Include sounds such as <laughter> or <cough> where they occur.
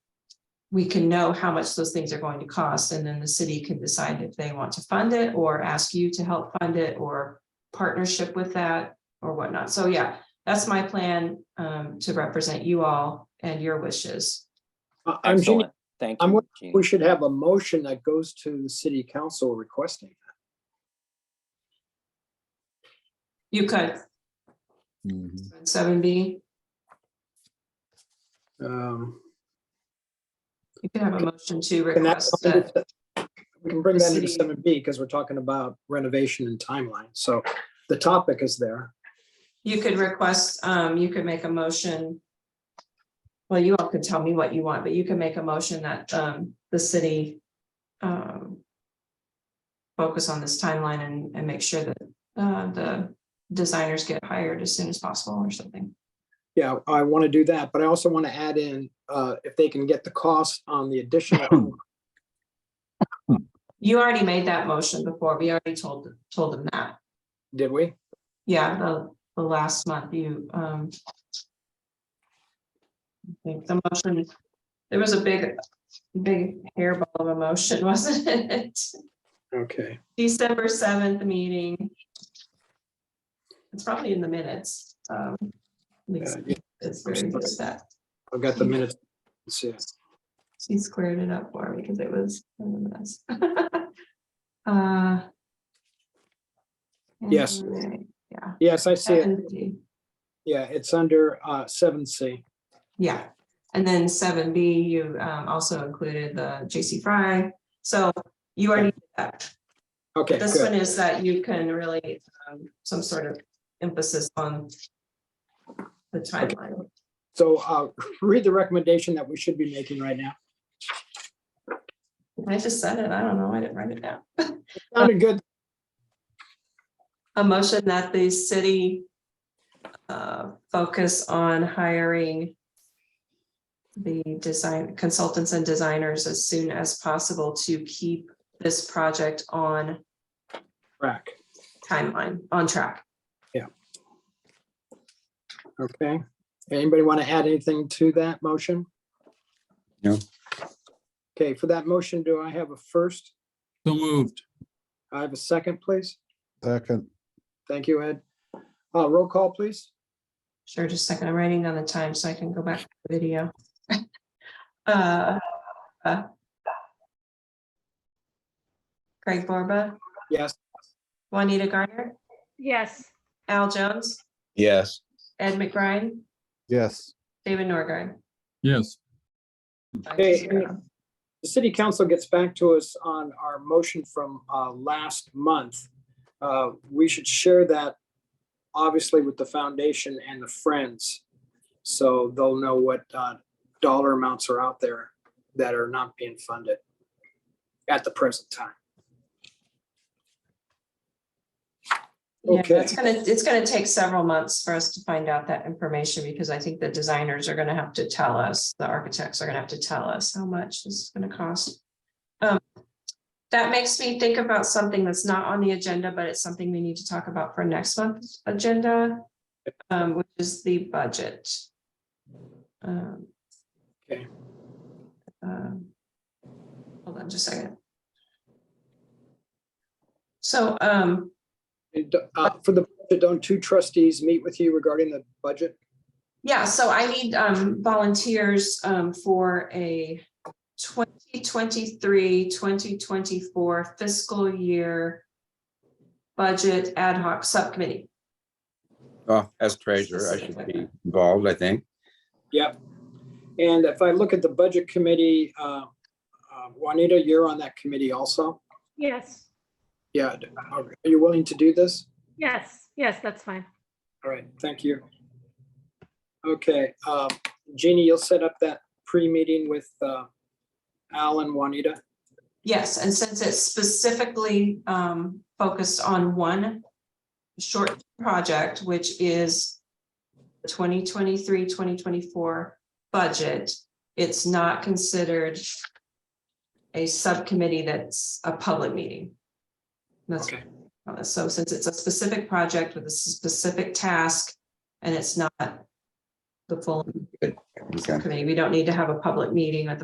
we can know how much those things are going to cost, and then the city can decide if they want to fund it or ask you to help fund it or partnership with that or whatnot. So yeah, that's my plan um to represent you all and your wishes. I- I'm, sure Excellent. Thank I'm you. wondering Jean. we should have a motion that goes to the city council requesting. You could, Mhm. seven B, Um, you could have a motion to and that's request something that. that- We can bring the that into city- seven B because we're talking about renovation and timeline. So the topic is there. You could request, um, you could make a motion. Well, you all could tell me what you want, but you can make a motion that, um, the city, um. Focus on this timeline and, and make sure that, uh, the designers get hired as soon as possible or something. Yeah, I want to do that, but I also want to add in, uh, if they can get the cost on the <clears throat> additional. You already made that motion before. We already told, told them that. Did we? Yeah, the, the last month you, um. I think the motion, there was a big, big hairball of emotion, <laughs> wasn't it? Okay. December seventh meeting. It's probably in the minutes. um, at least Uh, yeah, It's very good at that. I've got the minutes. Let's see. She squared it up for me because it was a mess. <laughs> Uh, Yes. anyway, Yeah. Yes, I see it. 7B. Yeah, it's under, uh, seven C. Yeah, and then seven B, you um also included the J.C. Fry. So you already, did that. Okay, this one good. is that you can really, um, some sort of emphasis on the timeline. So, uh, <laughs> read the recommendation that we should be making right now. I just said it, I don't know, I didn't write it down. Sounded good. A motion that the city uh, focus on hiring the design consultants and designers as soon as possible to keep this project on Rack. timeline, on track. Okay, anybody want to add anything to that motion? No. Okay, for that motion, do I have a first? So moved. I have a second, please. Second, Thank you, Ed. Uh, roll call, please. Sure, just a second. I'm writing down the time so I can go back to the video. <laughs> Uh, uh. Craig Borba, Yes, Juanita Garner, Yes, Al Jones, Yes, Ed McBride, yes, David Norgren. Yes. Hey, the city council gets back to us on our motion from, uh, last month. Uh, we should share that, obviously, with the foundation and the friends. So they'll know what, uh, dollar amounts are out there that are not being funded at the present time. Yeah, okay. it's gonna, it's gonna take several months for us to find out that information because I think the designers are gonna have to tell us, the architects are gonna have to tell us how much this is gonna cost. Um, That makes me think about something that's not on the agenda, but it's something we need to talk about for next month's agenda, um, which is the budget. Um, Okay. um, Hold on just a second. So, um, And, uh, For the, don't two trustees meet with you regarding the budget? Yeah, so I need um volunteers um for a 2023-2024 fiscal year budget ad hoc subcommittee. oh, as treasurer, I should be involved, I think. Yep. And if I look at the budget committee, uh, uh, Juanita, you're on that committee also? yes, Yeah. Are you willing to do this? yes, yes, that's fine. All right, thank you. Okay, uh, Jeannie, you'll set up that pre-meeting with uh, Al and Juanita? Yes, and since it's specifically um focused on one short project, which is 2023-2024 budget, it's not considered a subcommittee that's a public meeting. That's Okay. Uh, So since it's a specific project with a specific task and it's not the full Okay. committee, we don't need to have a public meeting at the